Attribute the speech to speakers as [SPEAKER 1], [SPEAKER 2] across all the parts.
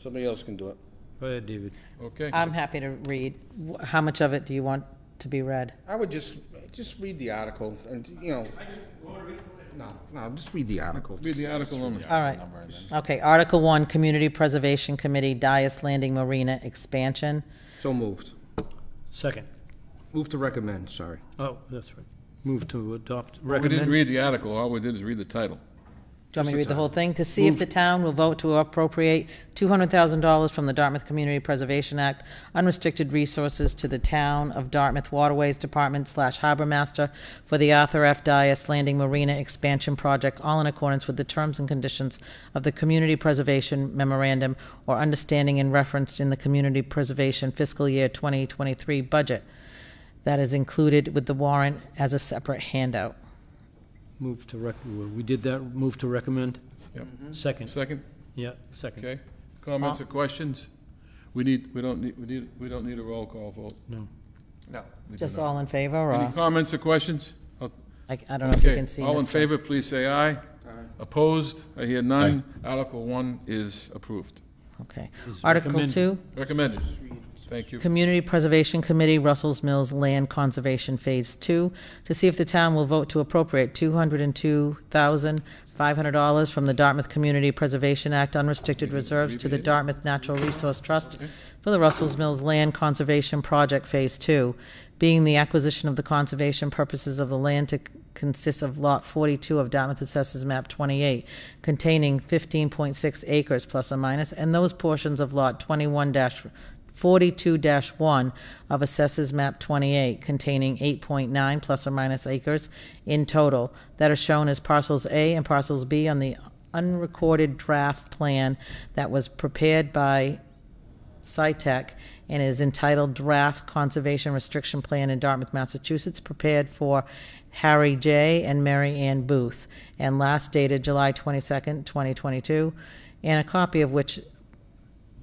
[SPEAKER 1] Somebody else can do it.
[SPEAKER 2] Go ahead, David.
[SPEAKER 3] Okay.
[SPEAKER 4] I'm happy to read. Wh- How much of it do you want to be read?
[SPEAKER 1] I would just, just read the article and, you know. No, no, just read the article.
[SPEAKER 3] Read the article number.
[SPEAKER 4] All right. Okay, Article One, Community Preservation Committee, Dias Landing Marina Expansion.
[SPEAKER 1] So moved.
[SPEAKER 2] Second.
[SPEAKER 1] Move to recommend, sorry.
[SPEAKER 2] Oh, that's right. Move to adopt,
[SPEAKER 3] Oh, We didn't
[SPEAKER 2] recommend.
[SPEAKER 3] read the article, all we did is read the title.
[SPEAKER 4] Do you want me to read the whole thing? To see if the town will vote to appropriate $200,000 from the Dartmouth Community Preservation Act, unrestricted resources to the town of Dartmouth Waterways Department slash Harbor Master for the Arthur F. Dias Landing Marina Expansion Project, all in accordance with the terms and conditions of the Community Preservation Memorandum or understanding and referenced in the Community Preservation Fiscal Year 2023 budget. That is included with the warrant as a separate handout.
[SPEAKER 2] Move to rec, we did that, move to recommend?
[SPEAKER 3] Yep.
[SPEAKER 2] Second,
[SPEAKER 3] Second,
[SPEAKER 2] yeah, second.
[SPEAKER 3] okay? Comments or
[SPEAKER 4] Uh-huh.
[SPEAKER 3] questions? We need, we don't need, we need, we don't need a roll call vote.
[SPEAKER 2] No.
[SPEAKER 1] No.
[SPEAKER 3] We do
[SPEAKER 4] Just
[SPEAKER 3] not.
[SPEAKER 4] all in favor,
[SPEAKER 3] Any
[SPEAKER 4] or,
[SPEAKER 3] comments or questions?
[SPEAKER 4] I I don't know if you
[SPEAKER 3] Okay,
[SPEAKER 4] can see
[SPEAKER 3] All in
[SPEAKER 4] Mr.
[SPEAKER 3] favor, please say aye. Opposed? I hear none. Article one is approved.
[SPEAKER 4] Okay. Article
[SPEAKER 2] recommended.
[SPEAKER 4] two,
[SPEAKER 3] Recommended. Thank you.
[SPEAKER 4] Community Preservation Committee, Russell's Mills Land Conservation Phase Two, to see if the town will vote to appropriate two hundred and two thousand, five hundred dollars from the Dartmouth Community Preservation Act unrestricted reserves to the Dartmouth Natural Resource Trust for the Russell's Mills Land Conservation Project Phase Two, being the acquisition of the conservation purposes of the land to consists of Lot 42 of Dartmouth Assessors Map 28, containing 15.6 acres plus or minus, and those portions of Lot 21 42-1 of Assessors Map 28, containing 8.9 plus or minus acres in total, that are shown as parcels A and parcels B on the unrecorded draft plan that was prepared by SciTech and is entitled Draft Conservation Restriction Plan in Dartmouth, Massachusetts, prepared for Harry J. and Mary Ann Booth, and last dated July 22nd, 2022, and a copy of which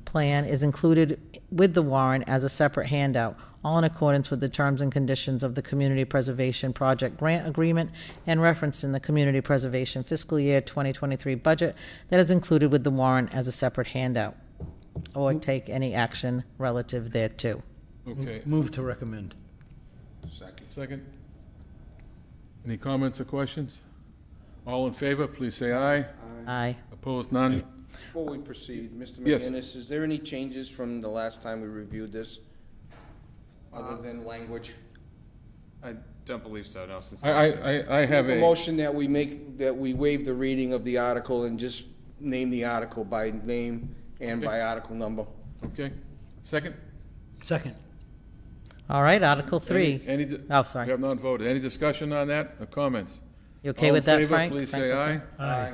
[SPEAKER 4] plan is included with the warrant as a separate handout, all in accordance with the terms and conditions of the Community Preservation Project Grant Agreement and referenced in the Community Preservation Fiscal Year 2023 budget that is included with the warrant as a separate handout, or take any action relative thereto.
[SPEAKER 3] Okay,
[SPEAKER 2] Move to recommend.
[SPEAKER 3] second. Any comments or questions? All in favor, please say aye.
[SPEAKER 4] Aye.
[SPEAKER 3] Opposed, none.
[SPEAKER 1] Before we proceed, Mr.
[SPEAKER 3] Yes.
[SPEAKER 1] McGinnis, is there any changes from the last time we reviewed this? Other than language?
[SPEAKER 5] I don't believe so, no, since.
[SPEAKER 3] I, I, I- I have
[SPEAKER 1] A
[SPEAKER 3] a,
[SPEAKER 1] motion that we make, that we waive the reading of the article and just name the article by name and by article number.
[SPEAKER 3] okay, second?
[SPEAKER 2] Second.
[SPEAKER 4] All right, Article 3.
[SPEAKER 3] Any, any di-
[SPEAKER 4] Oh,
[SPEAKER 3] we
[SPEAKER 4] sorry.
[SPEAKER 3] have not voted. Any discussion on that or comments?
[SPEAKER 4] You okay with that, Frank?
[SPEAKER 3] All in favor, please
[SPEAKER 4] Frank's
[SPEAKER 3] say
[SPEAKER 4] okay?
[SPEAKER 3] aye.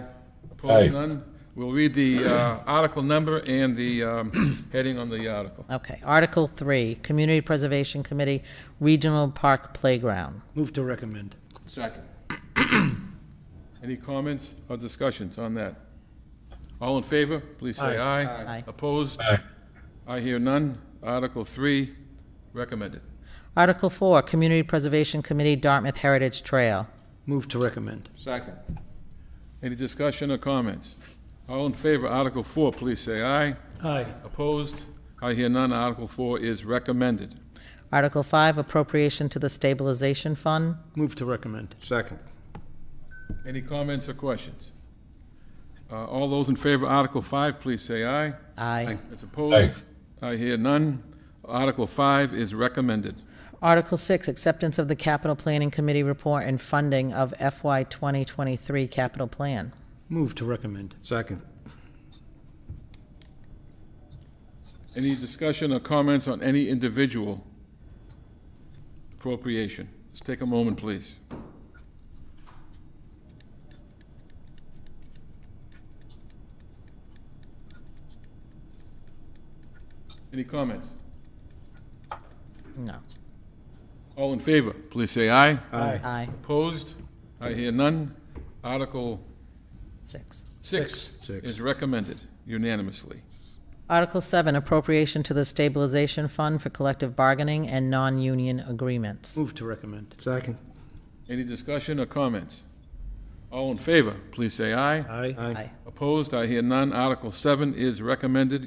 [SPEAKER 3] Opposed, none. We'll read the uh, article number and the um, heading on the article.
[SPEAKER 4] Okay. Article 3, Community Preservation Committee Regional Park Playground.
[SPEAKER 2] Move to recommend.
[SPEAKER 1] Second.
[SPEAKER 3] Any comments or discussions on that? All in favor, please say aye.
[SPEAKER 4] Aye.
[SPEAKER 3] Opposed? I hear none. Article three, recommended.
[SPEAKER 4] Article 4, Community Preservation Committee Dartmouth Heritage Trail.
[SPEAKER 2] Move to recommend.
[SPEAKER 1] Second.
[SPEAKER 3] Any discussion or comments? All in favor, Article four, please say aye.
[SPEAKER 2] Aye.
[SPEAKER 3] Opposed? I hear none. Article four is recommended.
[SPEAKER 4] Article 5, Appropriation to the Stabilization Fund.
[SPEAKER 2] Move to recommend.
[SPEAKER 1] Second.
[SPEAKER 3] Any comments or questions? Uh, All those in favor of Article 5, please say aye.
[SPEAKER 4] Aye.
[SPEAKER 3] That's opposed? I hear none. Article 5 is recommended.
[SPEAKER 4] Article 6, Acceptance of the Capital Planning Committee Report and Funding of FY 2023 Capital Plan.
[SPEAKER 2] Move to recommend.
[SPEAKER 1] Second.
[SPEAKER 3] Any discussion or comments on any individual appropriation? Let's take a moment, please. Any comments?
[SPEAKER 4] No.
[SPEAKER 3] All in favor, please say aye.
[SPEAKER 2] Aye.
[SPEAKER 4] Aye.
[SPEAKER 3] Opposed? I hear none. Article
[SPEAKER 4] 6.
[SPEAKER 3] 6
[SPEAKER 1] Six.
[SPEAKER 3] is recommended unanimously.
[SPEAKER 4] Article 7, Appropriation to the Stabilization Fund for Collective Bargaining and Non-Union Agreements.
[SPEAKER 2] Move to recommend.
[SPEAKER 1] Second.
[SPEAKER 3] Any discussion or comments? All in favor, please say aye.
[SPEAKER 2] Aye.
[SPEAKER 4] Aye.
[SPEAKER 3] Opposed? I hear none. Article 7 is recommended